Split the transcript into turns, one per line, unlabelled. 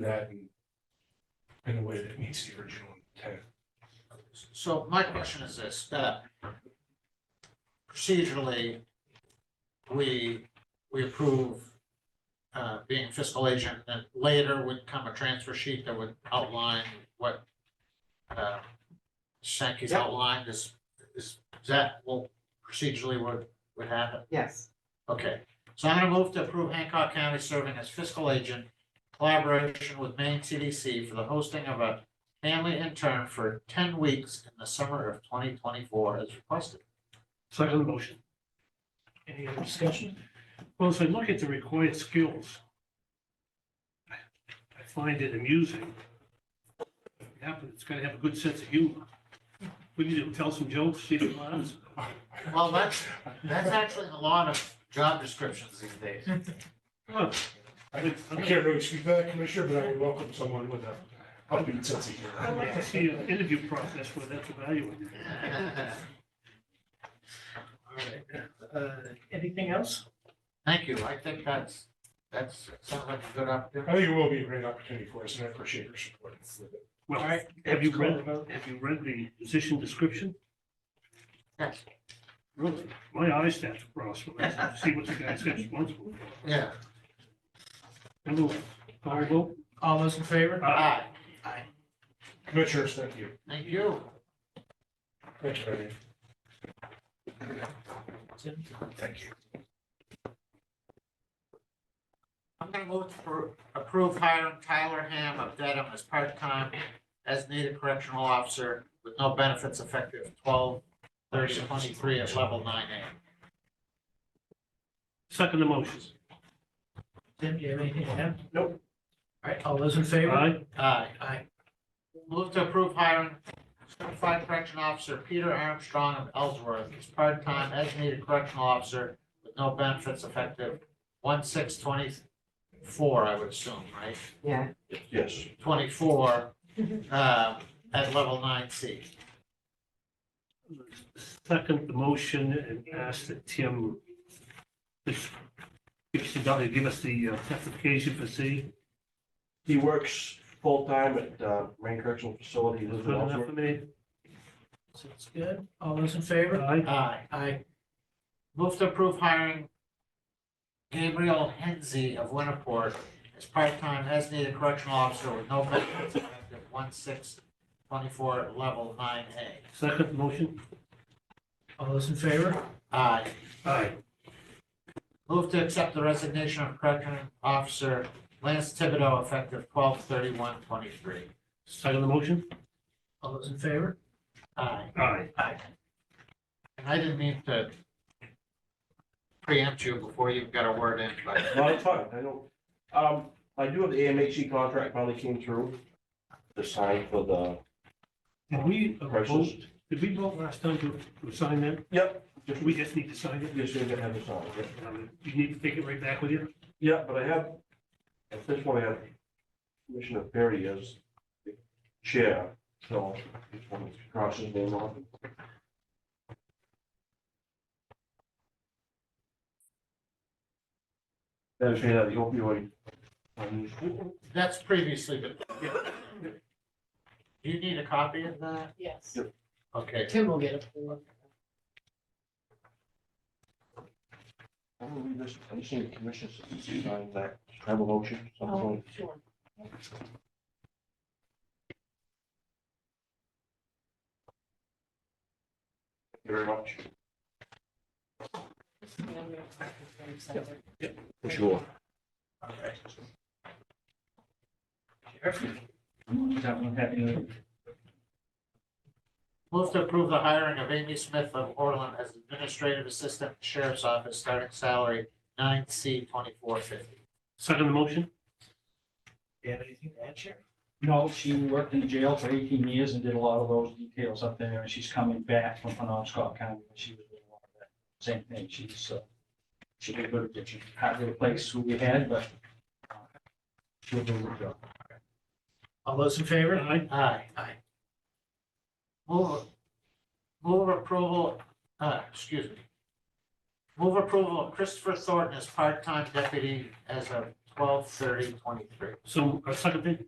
that in- in a way that meets the original intent.
So my question is this, that procedurally, we, we approve uh, being fiscal agent, and later would come a transfer sheet that would outline what uh, Sankey's
Yep.
outlined is, is, is that, well, procedurally would, would happen?
Yes,
Okay, so I'm gonna move to approve Hancock County serving as fiscal agent in collaboration with Maine CDC for the hosting of a family intern for ten weeks in the summer of twenty twenty-four as requested.
Second motion. Any other discussion? Well, as I look at the required skills, I find it amusing. Yeah, but it's gotta have a good sense of humor. We need to tell some jokes, see some laughs.
Well, that's, that's actually a lot of job descriptions these days.
Huh,
I I can't really speak to that, Commissioner, but I would welcome someone with a, a good sense of
I'd like to
humor.
see an interview process where that's evaluated. Uh, Anything else?
Thank you, I think that's, that's, sounds like a good
I
opportunity.
think it will be a great opportunity for us, and I appreciate your support.
Well,
Alright.
have you read, have you read the position description?
Yes,
Really, my eyes start to cross when I see what the guy's got responsible for.
yeah,
Number one, call vote.
All those in favor?
Aye.
aye,
Commissioners, thank you.
thank you.
Thank you, Ernie.
Tim?
Thank you.
I'm gonna move to approve hiring Tyler Ham of Dedham as part-time as needed correctional officer with no benefits effective twelve thirty twenty-three at level nine A.
Second the motion.
Tim, do you have anything to add?
Nope.
All right, all those in favor?
Aye.
Aye.
Aye.
Move to approve hiring certified correction officer Peter Armstrong of Ellsworth as part-time as needed correctional officer with no benefits effective one six twenty-four, I would assume, right?
yeah,
Yes.
Twenty-four, uh, at level nine C.
Second the motion and ask that Tim if she doesn't give us the uh, justification for C.
He works full-time at uh, Rain Correctional Facility,
Good
lives in
enough
Ellsworth.
for me.
Sounds good. All those in favor?
Aye.
Aye.
Aye.
Move to approve hiring Gabriel Henze of Winterport as part-time as needed correctional officer with no benefits effective one six twenty-four level nine A.
Second the motion.
All those in favor?
Aye.
Aye.
Move to accept the resignation of correction officer Lance Thibodeau effective twelve thirty-one twenty-three.
Second the motion.
All those in favor?
Aye.
Aye.
And I didn't mean to preempt you before you've got a word in, but
Not a ton, I don't, um, I do have the AMHE contract finally came through to sign for the
Did we uh,
corrections.
vote, did we vote last time to to sign that?
Yep. Just
We just need to sign it.
Just need to have it signed, yeah.
Um, You need to take it right back with you.
Yeah, but I have, at this point, I have Commissioner Perry as the chair, so I just want to cross his name off. That is, yeah, the opioid. um,
that's previously been. Do you need a copy of that?
Yes,
Okay,
Tim will get it for.
I'm gonna read this, I'm seeing the commission sign that tribal motion, something.
Oh, Sure.
Thank you very much. For sure.
That one happened.
Move to approve the hiring of Amy Smith of Orland as administrative assistant to sheriff's office, starting salary nine C twenty-four fifty.
Second the motion.
Do you have anything to add, Sharon?
No, she worked in jail for eighteen years and did a lot of those details up there, and she's coming back from Penobscot County, and she was doing a lot of that. Same thing, she's, uh, she did good, at it. she had to replace who we had, but uh, she'll do her job.
All those in favor?
Aye.
Aye.
Aye.
Move, move approval, uh, excuse me. Move approval of Christopher Thornton as part-time deputy as of
twelve thirty twenty-three.
uh,
So, I second it.